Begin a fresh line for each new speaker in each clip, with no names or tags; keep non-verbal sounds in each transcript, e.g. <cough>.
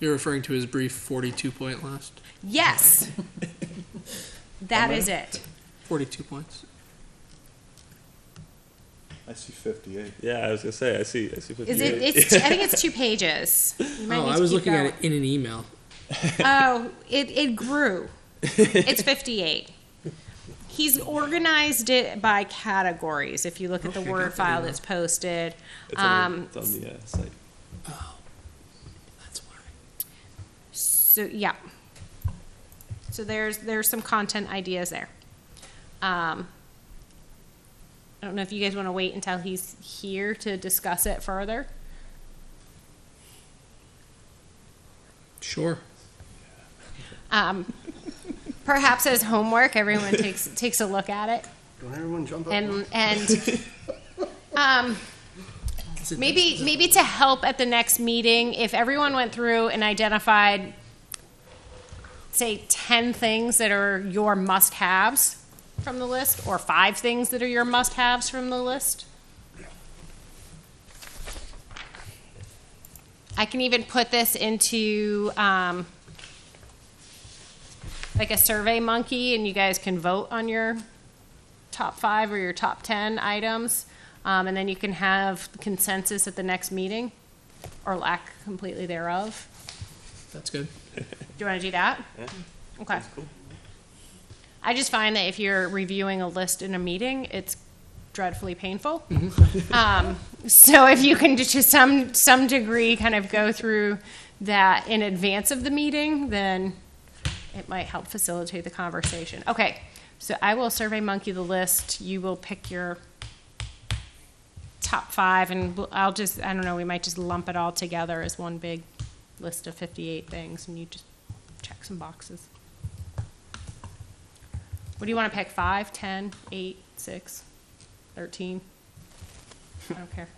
You're referring to his brief 42 point loss? <laughs>
Yes. That is it.
42 points.
I see 58.
Yeah, I was gonna say I see. I see. 58.
<laughs>
Is it? It's. I think it's two pages. You might
Oh,
need
I
to
was
keep
looking
going.
at it in an email.
Oh, it,
<laughs>
it grew. It's 58. He's organized it by categories. If you look at the
Okay,
Word
got that
file
email.
that's posted,
It's on, the-
um,
it's on the uh, site.
That's why.
so yeah. So there's there's some content ideas there. Um, I don't know if you guys want to wait until he's here to discuss it further.
Sure.
Um, perhaps as homework, everyone takes takes a look at it.
Don't everyone jump up.
and
<laughs>
and um, maybe maybe to help at the next meeting, if everyone went through and identified, say, ten things that are your must-haves from the list, or five things that are your must-haves from the list. I can even put this into um, like a Survey Monkey, and you guys can vote on your top five or your top 10 items, um, and then you can have consensus at the next meeting, or lack completely thereof.
That's good.
Do you want to do that? Okay. I just find that if you're reviewing a list in a meeting, it's dreadfully painful. <laughs> Um, So if you can, to some, some degree, kind of go through that in advance of the meeting, then it might help facilitate the conversation. Okay, so I will survey monkey the list. You will pick your top five, and we'll- I'll just, I don't know, we might just lump it all together as one big list of 58 things, and you just check some boxes. What do you want to pick? Five, 10, eight, six, 13? I don't care.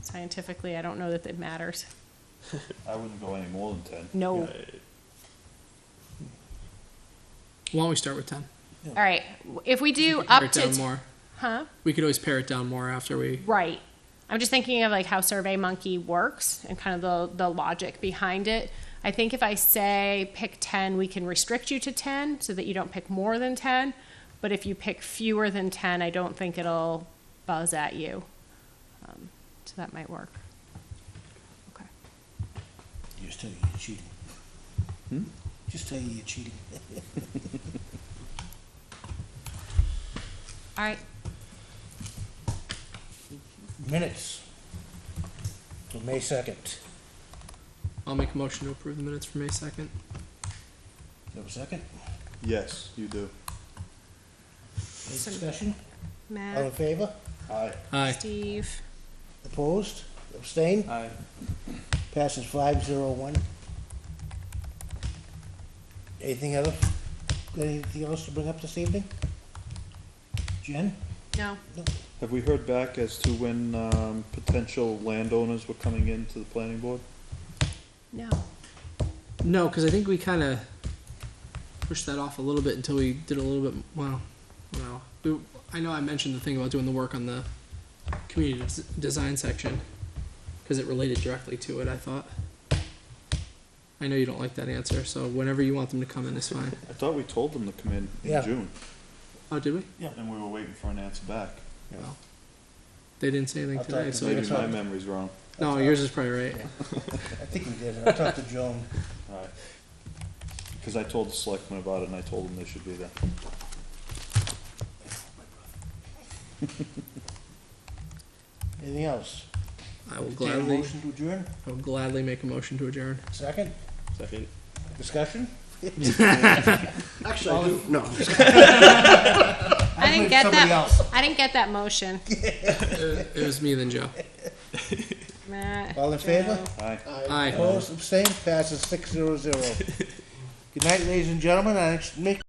Scientifically, I don't know that it matters.
I wouldn't go any more than 10.
No.
Why don't we start with 10?
All right, if we do
Pare
up
it down
to,
more.
huh?
We could always pare it down more after we.
Right. I'm just thinking of like how SurveyMonkey works and kind of the, the logic behind it. I think if I say pick 10, we can restrict you to 10 so that you don't pick more than 10. But if you pick fewer than 10, I don't think it'll buzz at you. Um, so that might work. Okay.
Just tell you you're cheating. Hmm? Just tell you you're cheating.
All right.
Minutes. For May second.
I'll make a motion to approve the minutes for May 2nd.
You have a second?
Yes, you do.
Any
Second. Uh,
discussion? All in
Matt,
favor?
Aye.
Aye.
Steve,
Opposed? Abstained?
Aye.
Passes five zero one. Anything else? Anything else to bring up this evening? Jen?
no.
Have we heard back as to when um, potential landowners were coming into the planning board?
No.
No, because I think we kind of pushed that off a little bit until we did a little bit. Well, well, we, I know I mentioned the thing about doing the work on the community des- design section because it related directly to it. I thought. I know you don't like that answer, so whenever you want them to come in is fine.
I thought we told them to come in in
Yeah.
June,
Oh, did we?
and we were waiting for an answer back.
Well, they didn't say anything
I'll talk
today,
to
so I
Maybe
just,
my
fine.
memory's wrong.
no, yours is probably right.
I think we did. I talked to Joan.
All right. Because I told the selectmen about it, and I told them they should be there.
Anything else?
I will
Take a
gladly,
motion to adjourn?
I will gladly make a motion to adjourn.
Second?
Second.
<laughs> Discussion?
Actually, I do. No.
I didn't
heard
get
somebody
that.
else.
I didn't get that motion. <laughs>
It was me then, Joe.
Matt.
All in favor?
Joe.
Aye.
Aye.
Opposed, abstained, passes six zero zero. Good night, ladies and gentlemen. Our next mi-